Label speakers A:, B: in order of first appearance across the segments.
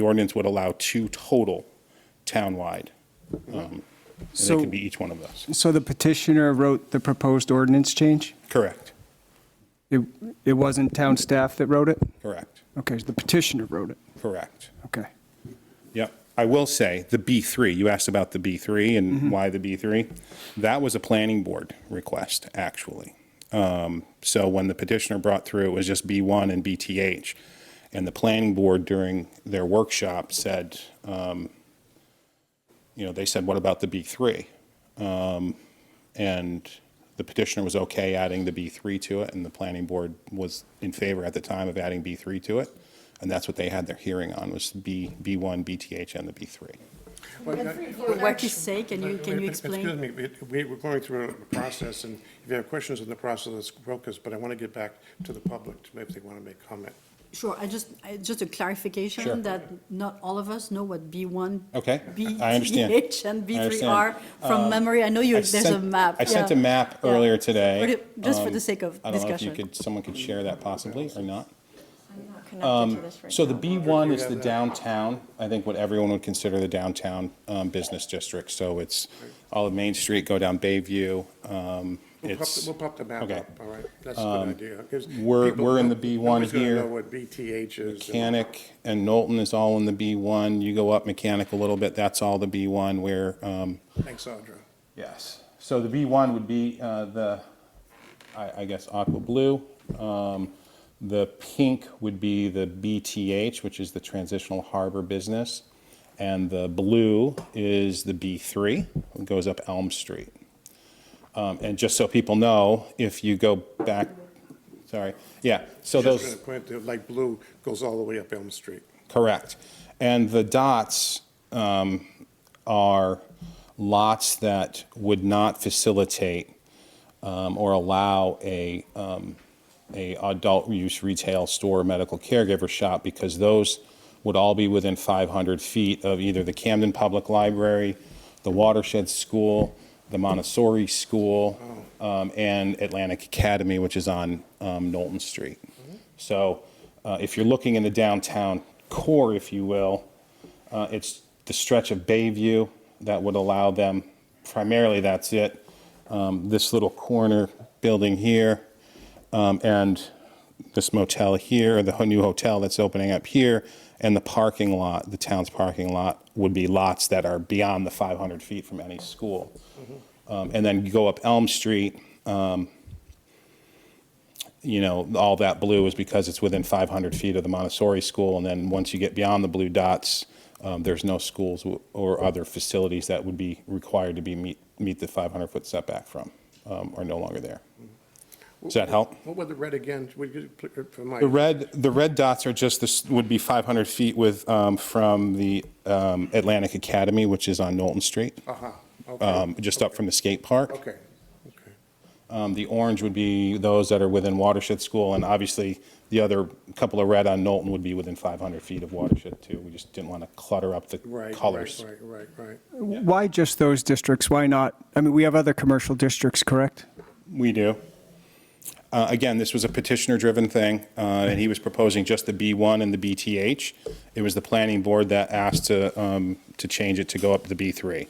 A: The ordinance would allow two total townwide. um, And they
B: So-
A: can be each one of those.
B: So the petitioner wrote the proposed ordinance change?
A: Correct,
B: It, it wasn't town staff that wrote it?
A: correct,
B: Okay, so the petitioner wrote it,
A: correct.
B: okay.
A: Yep. I will say, the B3, you asked about the B3 and why the B3. That was a planning board request, actually. Um, So when the petitioner brought through, it was just B1 and BTH. And the planning board during their workshop said, um, you know, they said, what about the B3? Um, And the petitioner was okay adding the B3 to it, and the planning board was in favor at the time of adding B3 to it. And that's what they had their hearing on, was B, B1, BTH, and the B3.
C: For Wacky's sake, can you, can you
D: Excuse
C: explain?
D: me, we- we, we're going through a process, and if you have questions on the process, let's focus, but I want to get back to the public, to maybe they want to make comment.
C: Sure, I just, I- just a
A: Sure.
C: clarification that not all of us know what B1.
A: Okay, I understand.
C: BTH and
A: I
C: B3
A: understand. Um,
C: are from memory. I know you,
A: I
C: there's a
A: sent-
C: map.
A: I sent
C: yeah.
A: a map
C: Yeah.
A: earlier today.
C: Okay, Just for
A: Um,
C: the sake of
A: I don't know if you
C: discussion.
A: could, someone could share that possibly or not.
E: connected to this right
A: So the
E: now.
A: B1 is the downtown, I think what everyone would consider the downtown um, business district. So it's all of Main Street, go down Bayview. um,
D: We'll pop, the-
A: It's,
D: we'll pop the map
A: okay. Um,
D: up, all right? That's a good idea. Gives
A: we're-
D: people-
A: we're in the B1
D: nobody's gonna
A: here.
D: know what BTH is. and-
A: Mechanic and Knowlton is all in the B1. You go up Mechanic a little bit, that's all the B1 where um,
D: Thanks, Audra.
A: Yes. So the B1 would be uh, the, I I guess, aqua blue. Um, The pink would be the BTH, which is the transitional harbor business. And the blue is the B3, it goes up Elm Street. Um, And just so people know, if you go back, sorry, yeah, so
D: Just
A: those.
D: gonna point to, like, blue goes all the way up Elm Street.
A: Correct. And the dots um, are lots that would not facilitate um, or allow a, um, a adult use retail store, medical caregiver shop, because those would all be within 500 feet of either the Camden Public Library, the Watershed School, the Montessori School, um, and Atlantic Academy, which is on um, Knowlton Street. So uh, if you're looking in the downtown core, if you will, uh, it's the stretch of Bayview that would allow them, primarily that's it, um, this little corner building here, um, and this motel here, the new hotel that's opening up here, and the parking lot, the town's parking lot, would be lots that are beyond the 500 feet from any school. Um, And then you go up Elm Street, um, you know, all that blue is because it's within 500 feet of the Montessori school. And then once you get beyond the blue dots, um, there's no schools w- or other facilities that would be required to be meet, meet the 500-foot setback from, um, are no longer there. Does that help?
D: What were the red again? Would you, pl- for my,
A: The red, the red dots are just this, would be 500 feet with, um, from the um, Atlantic Academy, which is on Knowlton Street,
D: uh-huh, okay,
A: um, just up from the skate park.
D: okay, okay.
A: Um, The orange would be those that are within Watershed School, and obviously, the other couple of red on Knowlton would be within 500 feet of Watershed, too. We just didn't want to clutter up the
D: Right,
A: colors.
D: right, right, right, right.
B: Why just those districts? Why not? I mean, we have other commercial districts, correct?
A: We do. Uh, Again, this was a petitioner-driven thing, uh, and he was proposing just the B1 and the BTH. It was the planning board that asked to, um, to change it to go up to B3.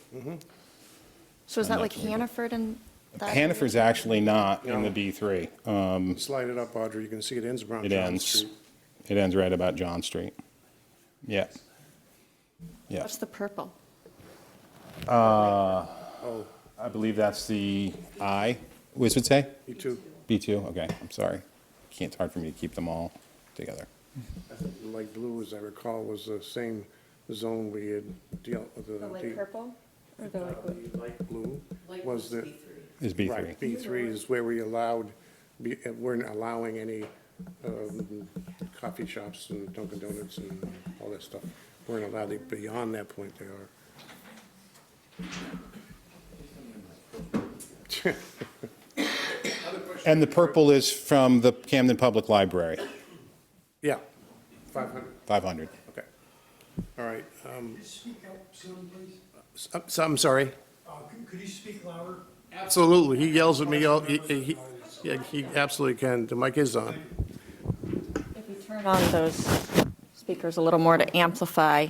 E: So is that like Hannaford and? that area?
A: Hannaford's actually not in the B3. Uh,
D: Slide it up, Audra, you can see it ends around
A: It
D: John
A: ends,
D: Street.
A: it ends right about John Street. Yeah. Yeah.
E: What's the purple?
D: Oh,
A: I believe that's the I, what does it say?
D: you too.
A: B2, okay, I'm sorry. Can't, it's hard for me to keep them all together.
D: Light blue, as I recall, was the same zone we had dealt with. uh, The uh,
E: purple?
D: the Light blue was the,
A: Is B3.
D: right, B three is where we allowed, we weren't allowing any um, coffee shops and Dunkin' Donuts and all that stuff. Weren't allowed, it beyond that point they are.
A: And the purple is from the Camden Public Library,
D: Yeah, five hundred,
A: 500.
D: okay. All right. um, s- uh, So, I'm sorry.
F: Uh, Could you speak louder?
D: Absolutely, he yells at me, all- he, he, yeah, he absolutely can, the mic is on.
E: If you turn on those speakers a little more to amplify